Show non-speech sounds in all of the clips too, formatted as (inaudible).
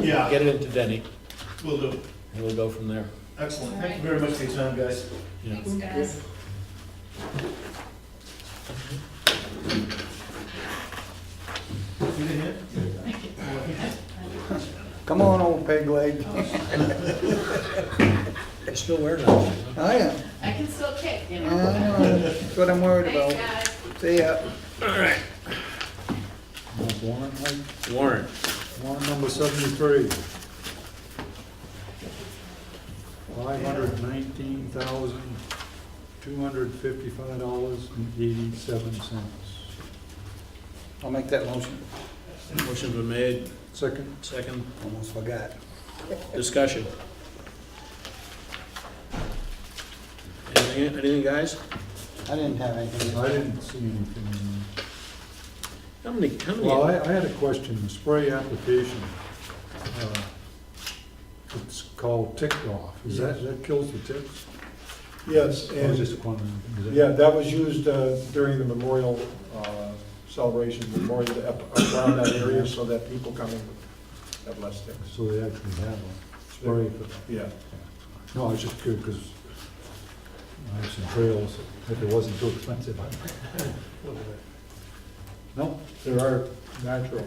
Yeah, Get it into Denny, will do. and we'll go from there. Excellent. Thank you very much for your time, guys. Yeah. Thanks, guys. You didn't hear? Come on, old peg (laughs) leg. You're still wearing that. I am. I can still kick, you Oh, I know. know. That's what I'm worried Thanks, about. guys. See ya. Warren, like? Warren. Warren number seventy-three. Five hundred nineteen thousand, two hundred fifty-five dollars and eighty-seven cents. I'll make that motion. Motion been made, Second, second, Almost forgot. discussion. Anything, anything, guys? I didn't have anything. I didn't see anything. How many, how Well, I, many, I had a question, the spray application. uh, It's called tick off, is that, that kills the ticks? Yes, I was and, just wondering. is that- yeah, that was used uh, during the memorial uh, celebration, memorial ep- around that area, so that people coming have less sticks. So they actually have a spray for that. Yeah, No, I was just curious, because I have some trails, if it wasn't too expensive, I (laughs) No, there are natural.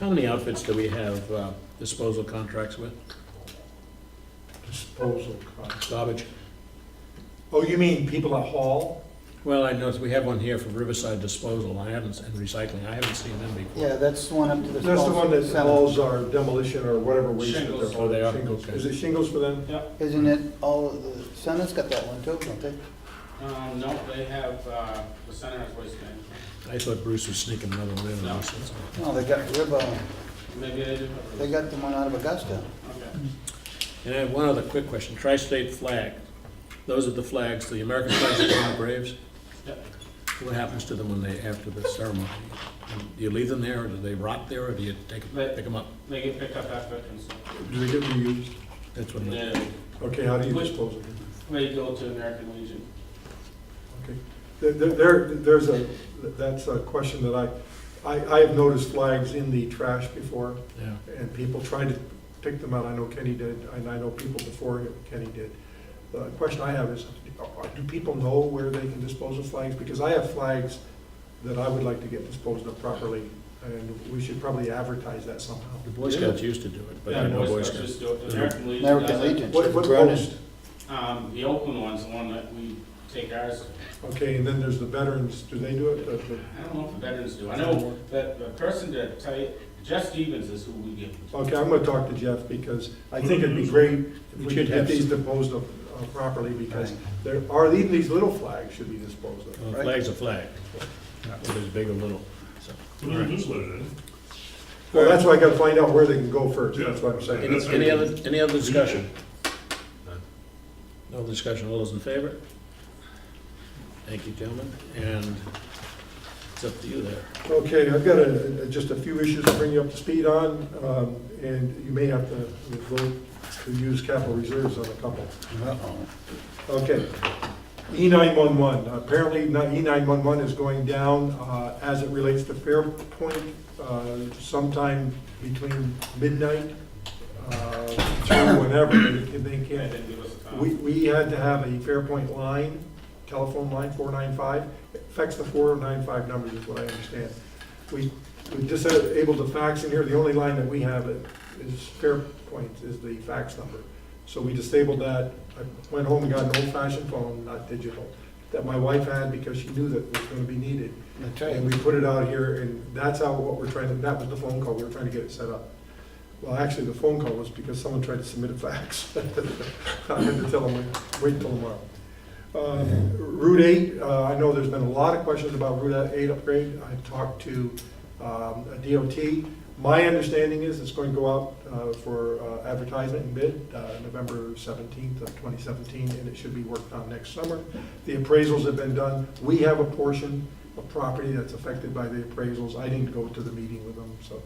how many outfits do we have uh, disposal contracts with, Disposal costs. garbage? Oh, you mean people at Hall? Well, I noticed we have one here for Riverside Disposal, I haven't, and recycling, I haven't seen them before. Yeah, that's the one up to the. That's the one that Spencer Center. involves our demolition or whatever waste that Shingles. they're. Oh, they are, Shingles. okay. Is it shingles for them? Yeah. Isn't it all, of the Senate's got that one too, don't they? Um, no, they have, uh, the center has waste management. I thought Bruce was sneaking another one in. No. No, they got River, Maybe they do. they got the one out of Augusta. Okay. And I have one other quick question, tri-state flag, those are the flags, the American flags that go on the Braves? Yep. What happens to them when they, after the ceremony? Do you leave them there, or do they rot there, or do you take, They- pick them up? They get picked up after it consumed. Do they get reused? That's what, it- They, Mm-hmm. Okay, how do you Which- dispose of them? they go to American Legion. Okay. There- There, there- there's a, that's a question that I, I, I have noticed flags in the trash before. yeah. and people tried to pick them out. I know Kenny did, and I know people before Kenny did. The question I have is, do people know where they can dispose of flags? Because I have flags that I would like to get disposed of properly, and we should probably advertise that somehow. The Boy Scouts used to do it, but Yeah, I know Boy Boy Scouts Scouts. just do it. Mhm. American Legion American does it. Legion. What, what Brennan. post? Um, the Oakland one's the one that we take ours. Okay, and then there's the veterans, do they do it? The- the- I don't know if the veterans do. I know Mm-hmm. that the person that type, Jeff Stevens is who we give. it to. Okay, I'm gonna talk to Jeff, because I think it'd be great if Mm-hmm. We we should could get have these some. disposed of uh, properly, because there are, even these little flags should be disposed of. Well, a Flag's a flag, whether it's big or little, so. Well, that's why I gotta find out where they can go first, that's what I'm saying. Any, any other, any other discussion? No discussion, all those in favor? Thank you, gentlemen, and it's up to you there. Okay, I've got a, a- just a few issues to bring you up to speed on, um, and you may have to vote to use capital reserves on a couple. Uh-oh. Okay. E nine-one-one, apparently E nine-one-one is going down, uh, as it relates to Fairpoint, uh, sometime between midnight, uh, through whenever, they can- They they can't didn't give us a time. We, we had to have a Fairpoint line, telephone line, four nine five, affects the four nine five numbers is what I understand. We, we just had, able to fax in here, the only line that we have is Fairpoint is the fax number. So we disabled that, I went home and got an old fashioned phone, not digital, that my wife had because she knew that was gonna be needed. That's And right. we put it out here, and that's how, what we're trying to, that was the phone call, we were trying to get it set up. Well, actually, the phone call was because someone tried to submit a fax. (laughs) I had to tell them, wait till tomorrow. Uh, Route eight, uh, I know there's been a lot of questions about Route eight upgrade. I talked to um, a DOT. My understanding is it's going to go out uh, for uh, advertisement and bid uh, November 17th of 2017, and it should be worked on next summer. The appraisals have been done. We have a portion of property that's affected by the appraisals. I didn't go to the meeting with them, so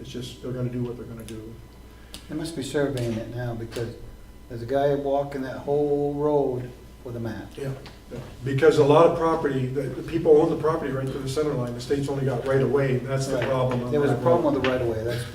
it's just, they're gonna do what they're gonna do. They must be surveying it now because there's a guy walking that whole road with a map. Yeah. Because a lot of property, the, the people own the property right to the center line. The state's only got right away, and that's the Right. problem. on There was a that road. problem with the right of way, that's